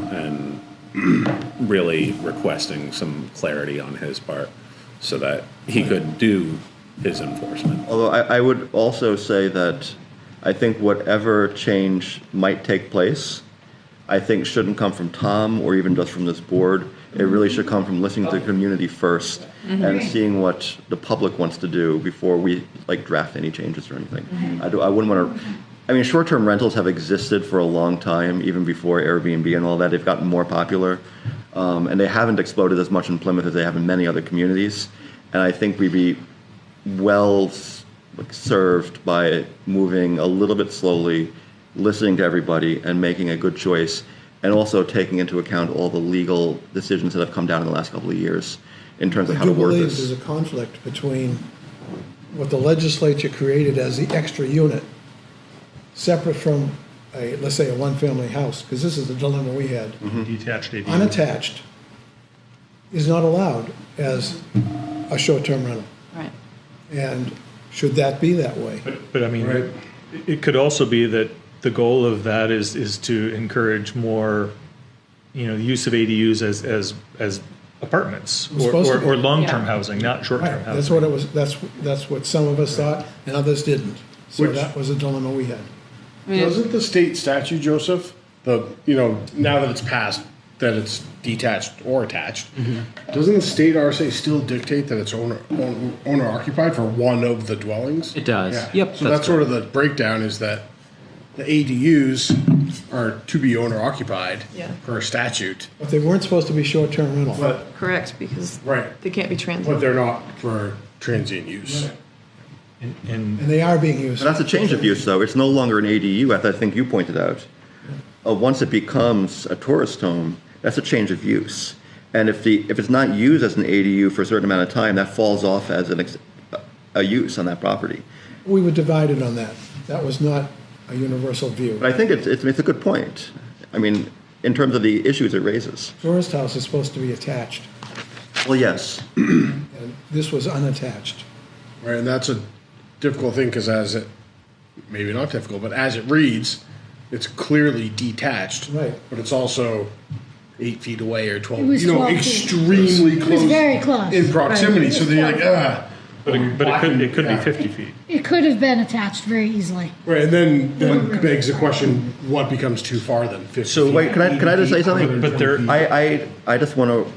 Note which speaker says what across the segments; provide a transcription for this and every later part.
Speaker 1: and really requesting some clarity on his part so that he could do his enforcement.
Speaker 2: Although I, I would also say that I think whatever change might take place, I think shouldn't come from Tom or even just from this board. It really should come from listening to the community 1st and seeing what the public wants to do before we like draft any changes or anything. I, do, I wouldn't want to. I mean, short-term rentals have existed for a long time, even before Airbnb and all that. They've gotten more popular, um, and they haven't exploded as much in Plymouth as they have in many other communities. And I think we'd be well s- like, served by moving a little bit slowly, listening to everybody, and making a good choice, and also taking into account all the legal decisions that have come down in the last couple of years in terms of
Speaker 3: I
Speaker 2: how to
Speaker 3: do
Speaker 2: word
Speaker 3: believe
Speaker 2: this.
Speaker 3: there's a conflict between what the legislature created as the extra unit, separate from a, let's say, a one-family house, because this is the dilemma we had.
Speaker 2: Mm-hmm.
Speaker 4: Detached ADU.
Speaker 3: Unattached is not allowed as a short-term rental,
Speaker 5: Right.
Speaker 3: and should that be that way?
Speaker 4: But, but I mean, it- it could also be that the goal of that is, is to encourage more, you know, the use of ADUs as, as, as apartments
Speaker 3: was
Speaker 4: or,
Speaker 3: supposed to
Speaker 4: or,
Speaker 3: be.
Speaker 4: or long-term
Speaker 5: Yeah.
Speaker 4: housing, not short-term
Speaker 3: Right, that's
Speaker 4: housing.
Speaker 3: what it was, that's, that's what some of us thought, and others didn't. So
Speaker 6: Which-
Speaker 3: that was a dilemma we had.
Speaker 6: Doesn't the state statute, Joseph, the, you know, now that it's passed, that it's detached or attached,
Speaker 7: Mm-hmm.
Speaker 6: doesn't the state RSA still dictate that it's owner owner occupied for one of the dwellings?
Speaker 7: It does. Yep,
Speaker 6: So
Speaker 7: that's
Speaker 6: that's, sort of the breakdown is that the ADUs are to be owner occupied
Speaker 5: Yeah.
Speaker 6: per statute,
Speaker 3: But they weren't supposed to be short-term rental.
Speaker 6: but
Speaker 5: Correct, because
Speaker 6: Right.
Speaker 5: they can't be
Speaker 6: but
Speaker 5: transient.
Speaker 6: they're not for transient use.
Speaker 4: And- And
Speaker 3: And they are being used.
Speaker 2: But that's a change of use, though. It's no longer an ADU, as I think you pointed out. Uh, once it becomes a tourist home, that's a change of use. And if the if it's not used as an ADU for a certain amount of time, that falls off as an ex, a use on that property.
Speaker 3: We were divided on that. That was not a universal view.
Speaker 2: But I think it's it's, it's a good point. I mean, in terms of the issues it raises.
Speaker 3: Tourist house is supposed to be attached,
Speaker 2: Well, yes.
Speaker 3: and this was unattached.
Speaker 6: Right, and that's a difficult thing because as it, maybe not difficult, but as it reads, it's clearly detached.
Speaker 3: Right.
Speaker 6: But it's also eight feet away or twelve.
Speaker 8: It was
Speaker 6: you know,
Speaker 8: 12 feet.
Speaker 6: extremely
Speaker 8: was
Speaker 6: close.
Speaker 8: very close.
Speaker 6: in proximity.
Speaker 8: Right.
Speaker 6: So then you're like, ah.
Speaker 4: But it, but it could, it could be 50 feet.
Speaker 8: It could have been attached very easily.
Speaker 6: Right, and then then begs the question: What becomes too far then? 50
Speaker 4: So-
Speaker 6: feet?
Speaker 2: Wait, can I can I just say something?
Speaker 4: But there,
Speaker 2: I, I, I just want to,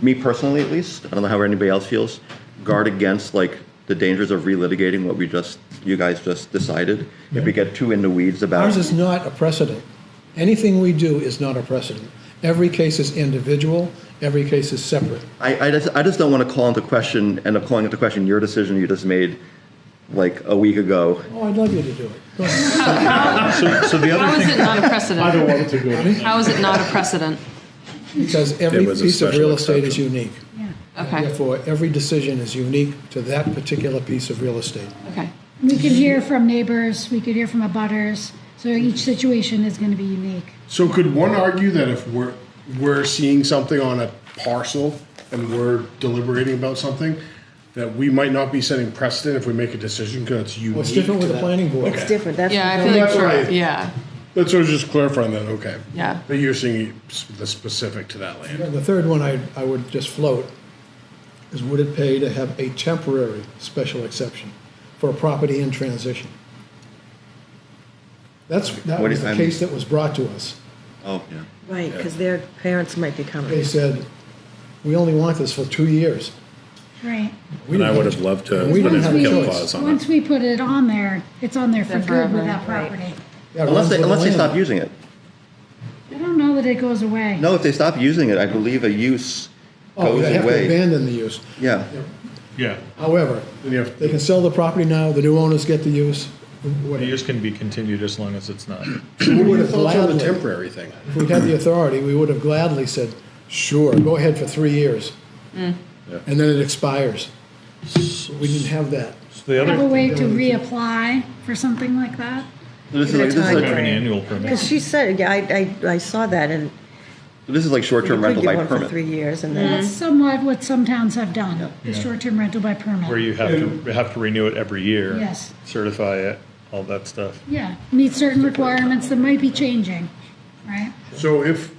Speaker 2: me personally at least, I don't know how anybody else feels, guard against like the dangers of relitigating what we just, you guys just decided. If we get too in the weeds about
Speaker 3: Ours is not a precedent. Anything we do is not a precedent. Every case is individual, every case is separate.
Speaker 2: I, I just, I just don't want to call into question, end up calling into question your decision you just made like a week ago.
Speaker 3: Oh, I'd love you to do it. Go ahead.
Speaker 4: so, so the
Speaker 5: How
Speaker 4: other
Speaker 5: is it
Speaker 4: thing,
Speaker 5: not a
Speaker 6: I don't
Speaker 5: precedent?
Speaker 6: want it to go.
Speaker 5: How is it not a precedent?
Speaker 3: Because every
Speaker 1: It was a
Speaker 3: piece of
Speaker 1: special
Speaker 3: real estate is
Speaker 1: exception.
Speaker 3: unique.
Speaker 5: Okay,
Speaker 3: Therefore, every decision is unique to that particular piece of real estate.
Speaker 5: okay.
Speaker 8: We could hear from neighbors, we could hear from abutters, so each situation is going to be unique.
Speaker 6: So could one argue that if we're we're seeing something on a parcel and we're deliberating about something, that we might not be setting precedent if we make a decision because it's unique.
Speaker 3: Well, it's different
Speaker 6: to
Speaker 3: with the
Speaker 6: that?
Speaker 3: planning board.
Speaker 9: It's different. That's
Speaker 5: Yeah, I feel like,
Speaker 6: That's
Speaker 5: for-
Speaker 6: right.
Speaker 5: yeah,
Speaker 6: That's what I was just clarifying that. Okay.
Speaker 5: Yeah.
Speaker 6: But you're seeing s- the specific to that land.
Speaker 3: And The third one I, I would just float is would it pay to have a temporary special exception for a property in transition? That's, that
Speaker 2: What
Speaker 3: was
Speaker 2: do-
Speaker 3: the
Speaker 2: I'm-
Speaker 3: case that was brought to us.
Speaker 2: Oh, yeah.
Speaker 9: right, because their parents might be
Speaker 3: They
Speaker 9: coming.
Speaker 3: said, we only want this for two years.
Speaker 8: Right.
Speaker 3: We
Speaker 1: And I
Speaker 3: didn't
Speaker 1: would
Speaker 3: have-
Speaker 1: have loved to
Speaker 3: We
Speaker 1: put
Speaker 3: didn't
Speaker 1: in
Speaker 3: have
Speaker 1: a
Speaker 3: a
Speaker 1: kill
Speaker 3: choice.
Speaker 1: clause on
Speaker 8: Once
Speaker 1: it.
Speaker 8: we put it on there, it's on there for
Speaker 5: There
Speaker 8: good with
Speaker 5: forever,
Speaker 8: that
Speaker 5: right.
Speaker 8: property.
Speaker 3: Yeah, it
Speaker 2: Unless
Speaker 3: runs
Speaker 2: they,
Speaker 3: with
Speaker 2: unless they
Speaker 3: the
Speaker 2: stop
Speaker 3: land.
Speaker 2: using it.
Speaker 8: I don't know that it goes away.
Speaker 2: No, if they stop using it, I believe a use
Speaker 3: Oh,
Speaker 2: goes
Speaker 3: they have to
Speaker 2: away.
Speaker 3: abandon the use.
Speaker 2: Yeah.
Speaker 4: yeah,
Speaker 3: However,
Speaker 6: Then you have-
Speaker 3: they can sell the property now, the new owners get the use.
Speaker 4: the
Speaker 3: whatever.
Speaker 4: use can be continued as long as it's not.
Speaker 6: What
Speaker 3: We
Speaker 6: are
Speaker 3: would
Speaker 6: your
Speaker 3: have
Speaker 6: thoughts on the
Speaker 3: gladly,
Speaker 6: temporary thing?
Speaker 3: if we had the authority, we would have gladly said, sure, go ahead for three years. And then it expires. We didn't have that.
Speaker 4: So the
Speaker 8: Have a
Speaker 4: other,
Speaker 8: way to reapply for something like that?
Speaker 2: This is
Speaker 9: Give it
Speaker 2: like, this is
Speaker 9: time.
Speaker 4: have an
Speaker 2: like,
Speaker 4: annual permit.
Speaker 9: Because she said, yeah, I, I, I saw that, and
Speaker 2: this is like
Speaker 9: you
Speaker 2: short-term
Speaker 9: could
Speaker 2: rental
Speaker 9: get
Speaker 2: by
Speaker 9: one for three
Speaker 2: permit.
Speaker 9: years, and then
Speaker 8: That's
Speaker 9: it's
Speaker 8: somewhat what some towns have done, the short-term rental by
Speaker 4: Where
Speaker 8: permit.
Speaker 4: you have to, have to renew it every year.
Speaker 8: Yes.
Speaker 4: Certify it, all that stuff.
Speaker 8: Yeah, meet certain requirements that might be changing, right?
Speaker 6: So if